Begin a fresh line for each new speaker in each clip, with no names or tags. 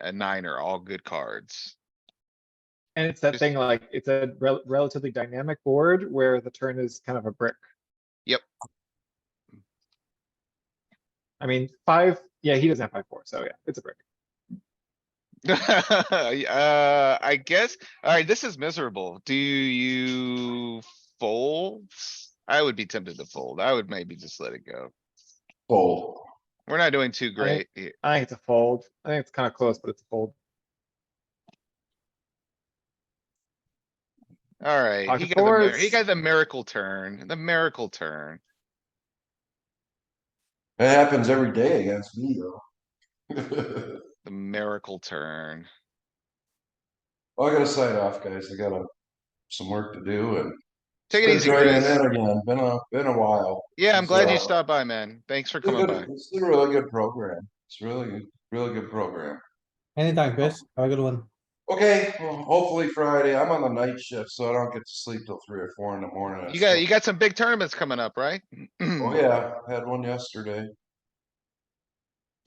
a nine are all good cards.
And it's that
Just-
thing like, it's a rel- relatively dynamic board where the turn is kind of a brick.
Yep.
I mean, five, yeah, he doesn't have five, four, so yeah, it's a brick.
Uh, I guess, alright, this is miserable. Do you fold? I would be tempted to fold. I would maybe just let it go.
Fold.
We're not doing too great. here.
I think it's a fold. I think it's kind of close, but it's a fold.
Alright, he
Pocket
got the, mir- he
fours.
got the miracle turn, the miracle turn.
It happens every day against me though.
The miracle turn.
Well, I gotta sign off, guys. I got some work to do and.
Take it
Been
easy,
joining
Chris.
in again. Been a, been a while.
Yeah, I'm
It's,
glad
uh,
you stopped by, man. Thanks for
It's a
coming by.
good- It's a really good program. It's really, good- really good program.
Anytime, Chris. Have a good one.
Okay, well, hopefully Friday. I'm on the night shift, so I don't get to sleep till three or four in the morning.
You got, you got some big tournaments coming up, right?
Oh, yeah, had one yesterday.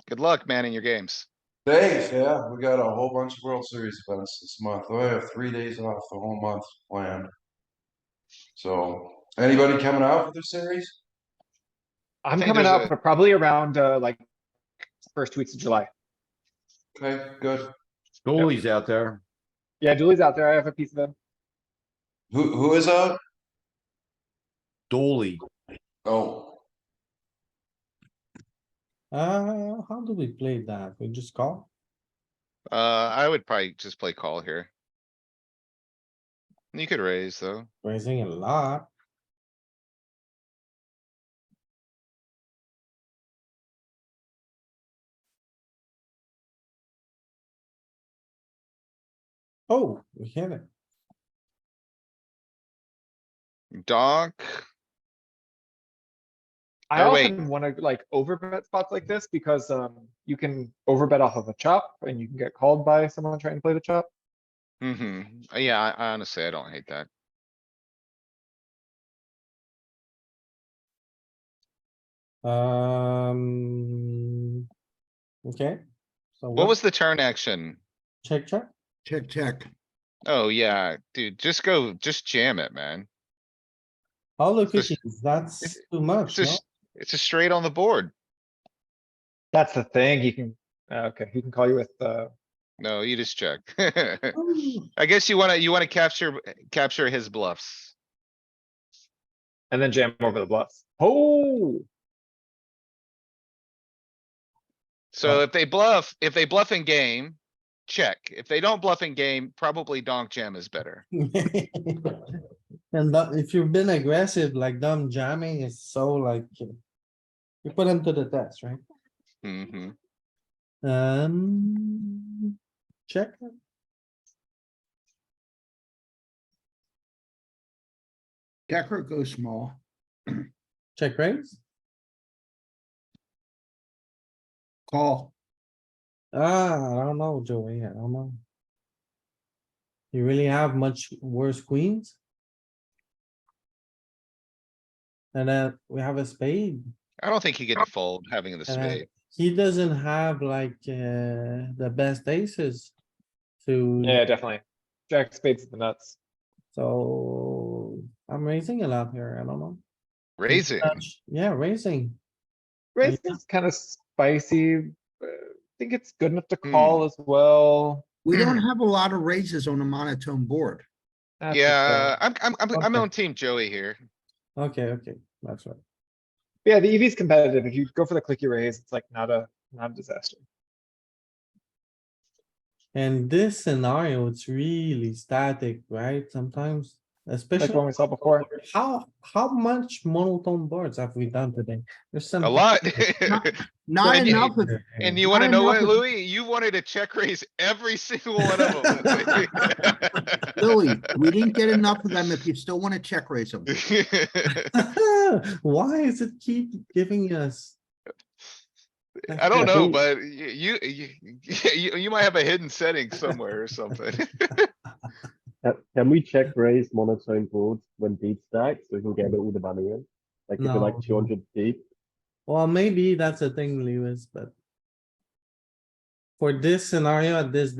Good luck, man, in your games.
Thanks, yeah, we got a whole bunch of World Series events this month. Oh, I have three days off the whole month planned. So, anybody coming out for the series?
I'm
think
coming
there's
up
a-
probably around, uh, like, first two weeks of July.
Okay, good.
Goalie's out there.
Yeah, Julie's out there. I have a piece of him.
Who, who is uh? out?
Dooley.
Oh,
Uh, how do we play that? We just call?
Uh, I would probably just play call here. You could raise, though.
Raising a lot. Oh, we hit it.
Donk,
I
Or Oh, wait.
often wanna like overbet spots like this because, um, you can overbet off of a chop and you can get called by someone trying to play the chop.
hmm Yeah, I- I honestly, I don't hate that.
Um. Okay. So
What was the turn action?
Check, check.
Check, check.
Oh, yeah, dude, just go, just jam it, man.
All the
It's just-
cookies, that's
it's-
too
It's
much, no?
just, it's just straight on the board.
That's the thing. He can, uh, okay, he can call you with, uh,
No, you just check.
Ooh,
I guess you wanna, you wanna capture, capture his bluffs.
and then jam over the bluffs. Oh,
So if they bluff, if they bluff in game, check. If they don't bluff in game, probably donk jam is better.
And that- if you've been aggressive, like dumb jamming is so like. You put him to the test, right?
hmm
Um, check.
Decker goes small.
Check raise?
Call.
Ah, I don't know, Joey, I don't know. You really have much worse queens? And then we have a spade.
I don't think you get to fold having the
and then
spade.
He doesn't have like, uh, the best aces.
yeah,
To,
definitely. Jack spades is the nuts.
so I'm raising a lot here, I don't know.
Raising.
Touch- Yeah, raising.
Raise
Yeah.
is kind of spicy. uh, I think it's good enough to call as well.
We don't have a lot of raises on a monotone board.
That's the
Yeah,
thing.
I'm, I'm, I'm, I'm
Okay.
on team Joey here.
Okay, okay, that's right.
Yeah, the EV is competitive. If you go for the clicky raise, it's like not a, not a disaster.
And this scenario, it's really static, right? Sometimes, especially.
Like one we saw before.
How, how much monotone boards have we done today? There's some.
A lot.
Not
Well, you-
enough of
And you
I
wanna
don't
know
know
what,
if it-
Louis? You wanted to check raise every single one of
Louis. We didn't get enough of them. If you still want to check raise them.
them.
Why is it keep giving us?
I don't
Yeah,
know,
who-
but y- you, you, you, you might have a hidden setting somewhere or something.
Can, can we check raise monotone boards when deep stacked so we can get all the money in? Like if you're
No.
like two hundred deep,
Well, maybe that's a thing, Lewis, but for this scenario at this